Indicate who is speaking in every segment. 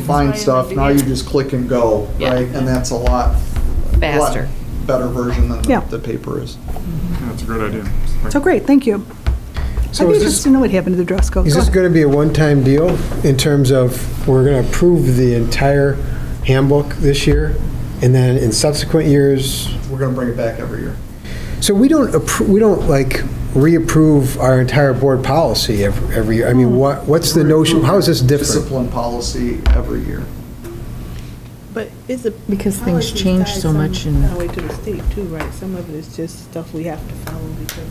Speaker 1: find
Speaker 2: Explain
Speaker 1: stuff,
Speaker 2: it
Speaker 1: now you
Speaker 2: again.
Speaker 1: just click and go,
Speaker 2: Yeah.
Speaker 1: right? And that's a lot. a lot
Speaker 2: Faster.
Speaker 1: Better version than
Speaker 3: Yeah.
Speaker 1: the- the paper is.
Speaker 4: That's a great idea.
Speaker 3: So great, thank you. I'd
Speaker 5: So
Speaker 3: be
Speaker 5: is this,
Speaker 3: interested to know what happened to the dress code.
Speaker 5: is
Speaker 3: Go
Speaker 5: this
Speaker 3: ahead.
Speaker 5: going to be a one-time deal in terms of, we're going to approve the entire handbook this year? And then in subsequent years,
Speaker 1: We're gonna bring it back every year.
Speaker 5: so we don't, appro- we don't like reapprove our entire board policy every, every year? I mean, what, what's the notion, how is this different?
Speaker 1: Discipline policy every year.
Speaker 6: But is it?
Speaker 7: Because things
Speaker 6: policies
Speaker 7: change
Speaker 6: tied
Speaker 7: so much
Speaker 6: some-
Speaker 7: and-
Speaker 6: That way to the state too, right? Some of it is just stuff we have to follow because,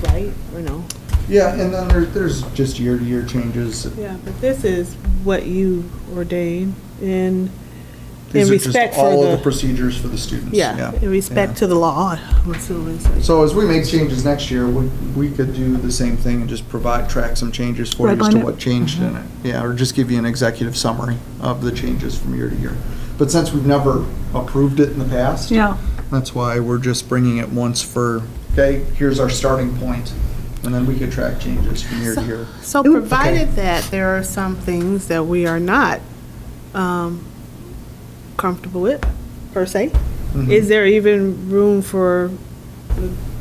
Speaker 6: it's right, or no?
Speaker 1: Yeah, and then there, there's just year-to-year changes.
Speaker 6: Yeah, but this is what you ordain in, in
Speaker 1: These are just
Speaker 6: respect
Speaker 1: all of
Speaker 6: for
Speaker 1: the
Speaker 6: the,
Speaker 1: procedures for the students.
Speaker 6: yeah, in
Speaker 1: yeah.
Speaker 6: respect to the law, I'm assuming. so.
Speaker 1: So as we make changes next year, we, we could do the same thing and just provide, track some changes for you as
Speaker 3: Redline
Speaker 1: to
Speaker 3: it.
Speaker 1: what changed in it. Yeah, or just give you an executive summary of the changes from year to year. But since we've never approved it in the past.
Speaker 3: Yeah,
Speaker 1: That's why we're just bringing it once for, okay, here's our starting point, and then we could track changes from year to year.
Speaker 6: So provided that there are some things that we are not um, comfortable with, per se,
Speaker 1: Mm-hmm.
Speaker 6: is there even room for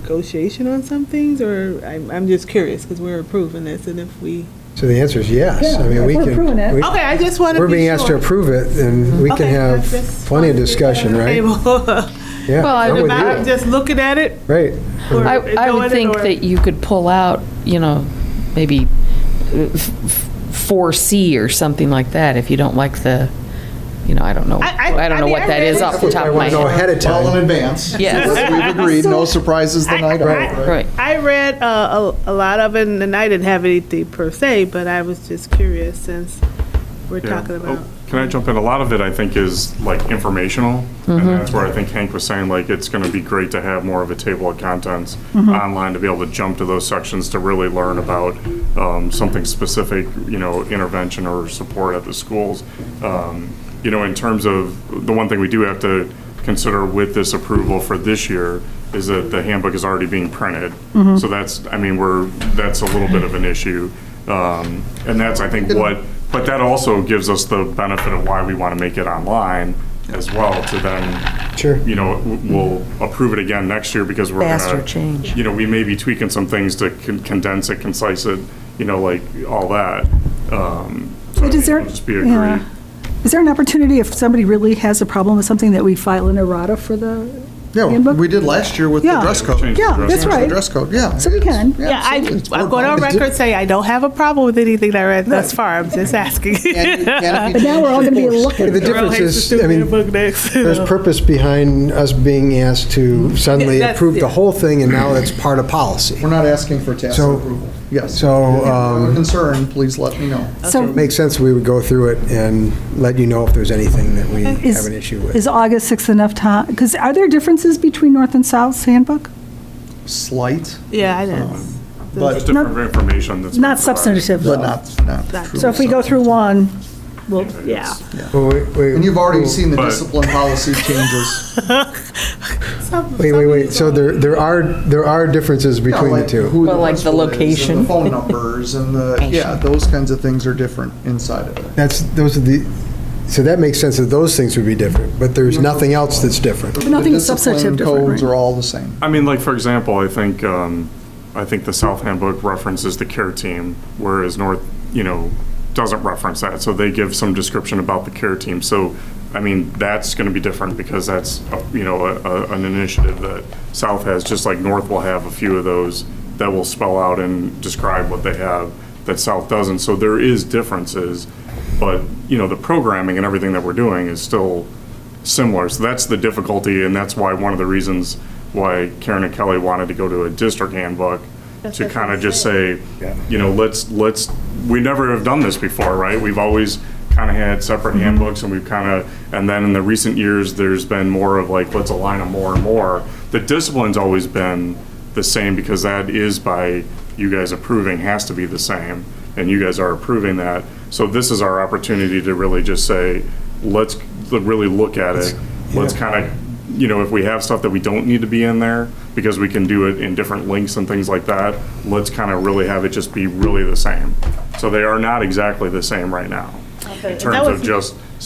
Speaker 6: negotiation on some things? Or I'm, I'm just curious, because we're approving this, and if we,
Speaker 5: So the answer is yes. I
Speaker 3: Yeah,
Speaker 5: mean, we
Speaker 3: we're
Speaker 5: can.
Speaker 3: approving it.
Speaker 5: we-
Speaker 6: okay, I just want to be
Speaker 5: We're being asked to
Speaker 6: sure.
Speaker 5: approve it, and we can
Speaker 6: Okay, I
Speaker 5: have
Speaker 6: just
Speaker 5: plenty of
Speaker 6: wanted to get that
Speaker 5: discussion,
Speaker 6: on the
Speaker 5: right?
Speaker 6: table.
Speaker 5: Yeah,
Speaker 2: Well, I
Speaker 5: I'm
Speaker 2: would
Speaker 5: with
Speaker 2: not
Speaker 6: I'm
Speaker 5: you.
Speaker 6: just looking at it.
Speaker 5: Right.
Speaker 6: or
Speaker 2: I, I
Speaker 6: ignoring
Speaker 2: would
Speaker 6: it,
Speaker 2: think
Speaker 6: or-
Speaker 2: that you could pull out, you know, maybe uh, four C or something like that if you don't like the, you know, I don't know,
Speaker 6: I- I-
Speaker 2: I don't
Speaker 6: I
Speaker 2: know
Speaker 6: mean,
Speaker 2: what
Speaker 6: I
Speaker 2: that
Speaker 6: read
Speaker 2: is
Speaker 6: it.
Speaker 2: off the top of my
Speaker 5: That's what I wanna know
Speaker 2: head.
Speaker 5: ahead of time.
Speaker 1: Well in advance.
Speaker 2: Yes.
Speaker 1: As We've agreed, no surprises the night
Speaker 6: Right.
Speaker 1: of.
Speaker 2: Right.
Speaker 6: I read uh, a, a lot of it, and I didn't have anything per se, but I was just curious since we're
Speaker 4: Yeah.
Speaker 6: talking
Speaker 4: Oh,
Speaker 6: about.
Speaker 4: Can I jump in? A lot of it, I think, is like informational. And that's where I think Hank was saying, like, it's going to be great to have more of a table of contents online to be able to jump to those sections to really learn about um, something specific, you know, intervention or support at the schools. Um, You know, in terms of, the one thing we do have to consider with this approval for this year is that the handbook is already being printed.
Speaker 7: Mm-hmm.
Speaker 4: So that's, I mean, we're, that's a little bit of an issue. Um, And that's, I think, what but that also gives us the benefit of why we want to make it online as well to then.
Speaker 5: Sure.
Speaker 4: You know, w- we'll approve it again next year because we're gonna.
Speaker 7: Faster change.
Speaker 4: You know, we may be tweaking some things to con- condense it, concise it, you know, like all that. Um,
Speaker 3: But
Speaker 4: So I think
Speaker 3: is there-
Speaker 4: it'll just be
Speaker 3: yeah.
Speaker 4: agreed.
Speaker 3: is there an opportunity if somebody really has a problem with something that we file an errata for the
Speaker 1: Yeah,
Speaker 3: handbook?
Speaker 1: we did last year with the
Speaker 3: Yeah.
Speaker 1: dress
Speaker 4: Change the
Speaker 1: code.
Speaker 3: Yeah,
Speaker 4: dress
Speaker 3: that's
Speaker 4: code.
Speaker 3: right.
Speaker 1: Dress code, yeah.
Speaker 3: So we
Speaker 1: it's-
Speaker 3: can.
Speaker 6: Yeah, I,
Speaker 1: it's-
Speaker 6: I go on
Speaker 1: it's-
Speaker 6: record say I don't have a problem with anything that I read thus far. I'm just asking.
Speaker 1: And you- and if you
Speaker 3: But now we're all gonna be
Speaker 1: change the
Speaker 3: looking.
Speaker 5: The
Speaker 1: course-
Speaker 5: difference
Speaker 6: Hates
Speaker 5: is,
Speaker 6: to
Speaker 5: I
Speaker 6: read a
Speaker 5: mean,
Speaker 6: book next.
Speaker 5: there's purpose behind us being asked to suddenly
Speaker 6: That's-
Speaker 5: approve the
Speaker 6: yeah.
Speaker 5: whole thing, and now it's part of policy.
Speaker 1: We're not asking for tacit
Speaker 5: So-
Speaker 1: approval. Yes. If
Speaker 5: so,
Speaker 1: you have a
Speaker 5: um,
Speaker 1: concern, please let me know.
Speaker 3: So
Speaker 5: Makes sense we would go through it and let you know if there's anything that we have
Speaker 3: is,
Speaker 5: an issue with.
Speaker 3: is August 6th enough time? Because are there differences between North and South's handbook?
Speaker 1: Slight,
Speaker 6: yeah, I know.
Speaker 4: Just
Speaker 1: but
Speaker 4: different information that's.
Speaker 3: Not
Speaker 4: been provided.
Speaker 3: substantive,
Speaker 1: but
Speaker 3: though.
Speaker 1: not, not true.
Speaker 3: So if we go through one,
Speaker 6: Well, yeah.
Speaker 4: Yes.
Speaker 5: Well, wait, wait,
Speaker 1: And you've already seen the
Speaker 4: But-
Speaker 1: discipline policy changes.
Speaker 5: Wait, wait, wait, so there, there are, there are differences between the two.
Speaker 2: Well, like the location.
Speaker 1: The phone numbers and the, yeah, those kinds of things are different inside of it.
Speaker 5: That's, those are the, so that makes sense that those things would be different, but there's nothing else that's different.
Speaker 3: nothing
Speaker 1: The discipline
Speaker 3: substantive different,
Speaker 1: Codes
Speaker 3: right?
Speaker 1: are all the same.
Speaker 4: I mean, like, for example, I think, um, I think the South Handbook references the care team, whereas North, you know, doesn't reference that, so they give some description about the care team. So, I mean, that's gonna be different because that's, uh, you know, a- a- an initiative that South has, just like North will have a few of those that will spell out and describe what they have that South doesn't. So there is differences, but, you know, the programming and everything that we're doing is still similar. So that's the difficulty, and that's why one of the reasons why Karen and Kelly wanted to go to a district handbook to kind of just say, you know, let's, let's, we never have done this before, right? We've always kind of had separate handbooks and we've kind of, and then in the recent years, there's been more of like, let's align them more and more. The discipline's always been the same because that is by you guys approving has to be the same and you guys are approving that. So this is our opportunity to really just say, let's really look at it. Let's kind of, you know, if we have stuff that we don't need to be in there, because we can do it in different links and things like that, let's kind of really have it just be really the same. So they are not exactly the same right now, in terms
Speaker 6: That
Speaker 4: of
Speaker 6: was-
Speaker 4: just